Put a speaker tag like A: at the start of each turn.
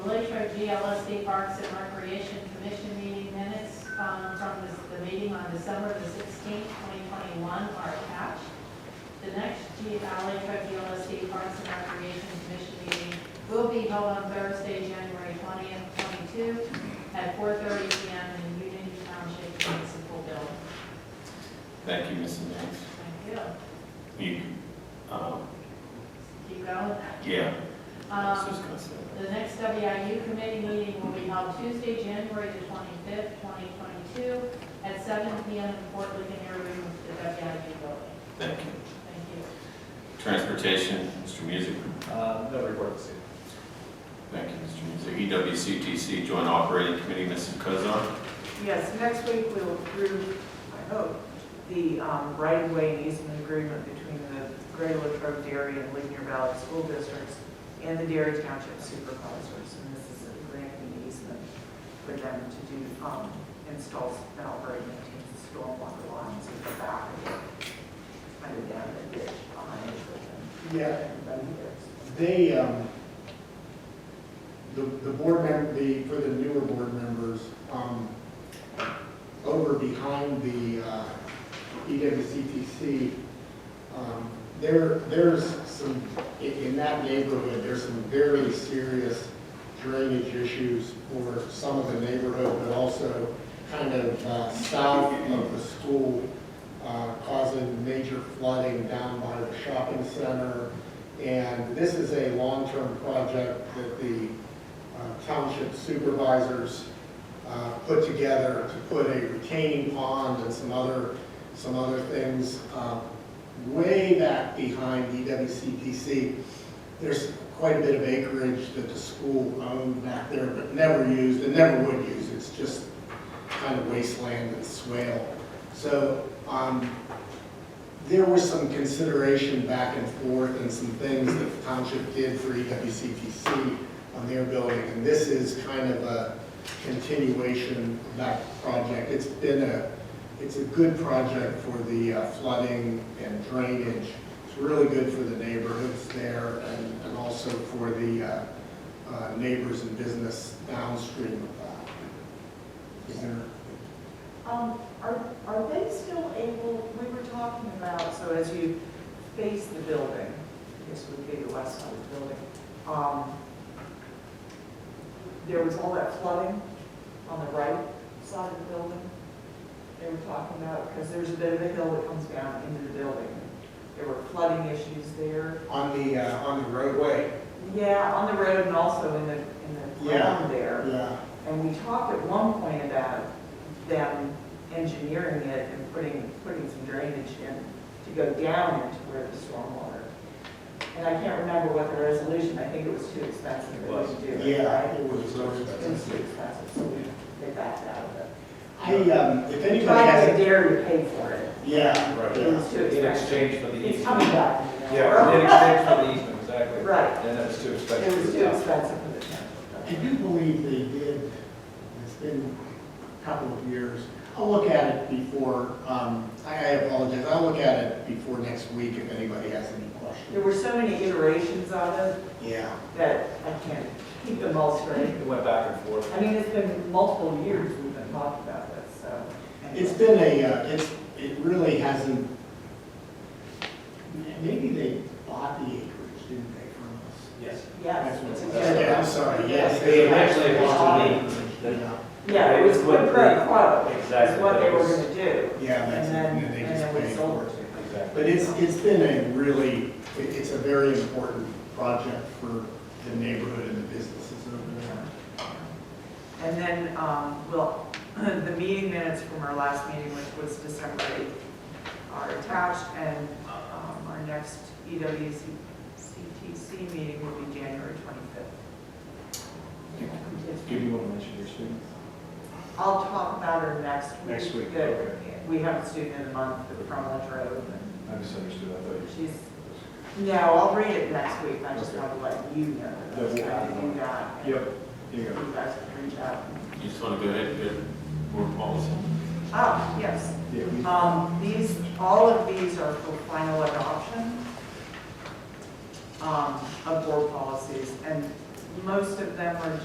A: for GLSD Parks and Recreation Commission meeting minutes um, from this- the meeting on December the 16th, 2021 are attached. The next G- uh, Latrobe GLSD Parks and Recreation Commission meeting will be held on Thursday, January 20th, 22, at 4:30 PM in Union Township Municipal Building.
B: Thank you, Mrs. Nance.
A: Thank you.
B: You, um,
A: Keep going.
B: yeah, I was
A: Um,
B: just gonna say
A: The next WIU committee meeting will be held Tuesday, January the twenty-fifth, twenty twenty-two, at seven P M in Fort Lincoln Air Room, the WIU building.
B: that. Thank you.
A: Thank you.
B: Transportation, Mr. Music.
C: Uh, No report this
B: Thank you, Mr. Music. E EWCTC Joint Operating Committee, Mrs. Cozart.
D: Yes, next week we'll approve, I hope, the um, right-of-way and easement agreement between the Greater Latrobe Dairy and Ligonier Valley School Districts and the Dairy Township Supervisors. And this is a grant and easement for them to do, um, installs and operate maintained stormwater lines in the back of it, kind of down the ditch behind it. but then-
E: Yeah.
D: Everybody gets-
E: They, um, the, the board member, the, for the newer board members, um, over behind the, uh, EWCTC, um, there, there's some, in, in that neighborhood, there's some very serious drainage issues for some of the neighborhood, but also kind of, uh, south of the school, uh, causing major flooding down by the shopping center, and this is a long-term project that the uh, township supervisors uh, put together to put a retaining pond and some other, some other things uh, way back behind E EWCPC. There's quite a bit of acreage that the school owned back there, but never used and never would use. It's just kind of wasteland and swale. So um, there was some consideration back and forth and some things that the township did for E EWCTC on their building, and this is kind of a continuation of that project. It's been a, it's a good project for the uh, flooding and drainage. It's really good for the neighborhoods there and, and also for the uh, uh, neighbors and business downstream of that. Is there,
D: Um, are, are they still able, we were talking about, so as you face the building, this would be the west side of the building, um, there was all that flooding on the right side of the building. They were talking about, because there's a bit of a hill that comes down into the building. There were flooding issues there.
E: on the, uh, on the roadway?
D: Yeah, on the road and also in the, in the
E: Yeah.
D: ground there.
E: Yeah.
D: And we talked at one point about them engineering it and putting, putting some drainage in to go down into where the stormwater. And I can't remember what the resolution, I think it was too expensive
C: It was.
D: to do it,
E: Yeah,
D: right?
E: it was
D: It was
E: really
D: too
E: expensive.
D: expensive, so we, they backed out of it.
E: I, um, if anybody
D: Tried to
E: has,
D: dare to pay for it,
E: yeah,
C: Right.
D: it
E: yeah.
D: was too
C: year. In
D: expensive.
C: exchange for the easement.
D: It's coming back.
C: Yeah, in exchange for the easement, exactly.
D: Right,
C: And that's too expensive.
D: it was too expensive for the town.
E: I do believe they did, it's been a couple of years. I'll look at it before, um, I I apologize, I'll look at it before next week if anybody has any
D: There
E: questions.
D: were so many iterations of it
E: Yeah,
D: that I can't keep them all straight.
C: It went back and forth.
D: I mean, it's been multiple years we've been talking about this, so.
E: it's been a, uh, it's, it really hasn't, maybe they bought the acreage, didn't they, from us?
C: Yes.
D: Yes.
E: That's
D: it's
E: what-
D: a good-
E: Yeah, I'm sorry, yes.
F: They actually
D: want
E: Yeah,
D: Yeah, it was
F: They
D: quid
F: would-
D: pro quo, is
F: Exactly.
D: what they were gonna do.
E: yeah,
D: And
E: that's,
D: then,
E: and they
D: and
E: just
D: then we
E: paid for
D: sold
E: it.
D: it.
C: Exactly.
E: But it's, it's been a really, it- it's a very important project for the neighborhood and the businesses over there.
D: And then, um, well, the meeting minutes from our last meeting, which was December 8th, are attached, and um, our next EWCTC meeting will be January 25th.
C: Do you want to mention your students?
D: I'll talk about her next week.
C: Next week,
D: that
C: okay.
D: We have a student in the month from Latrobe, and
C: I misunderstood, I thought you
D: She's, no, I'll read it next week, I just want to let you know.
C: Yeah, we'll
D: that
C: add it
D: I do
C: on.
D: that.
C: Yep, you go.
D: You guys can reach out.
B: You just wanna go ahead and get more policy?
D: Ah, yes,
C: Yeah, we-
D: um, these, all of these are for final adoption um, of board policies, and most of them are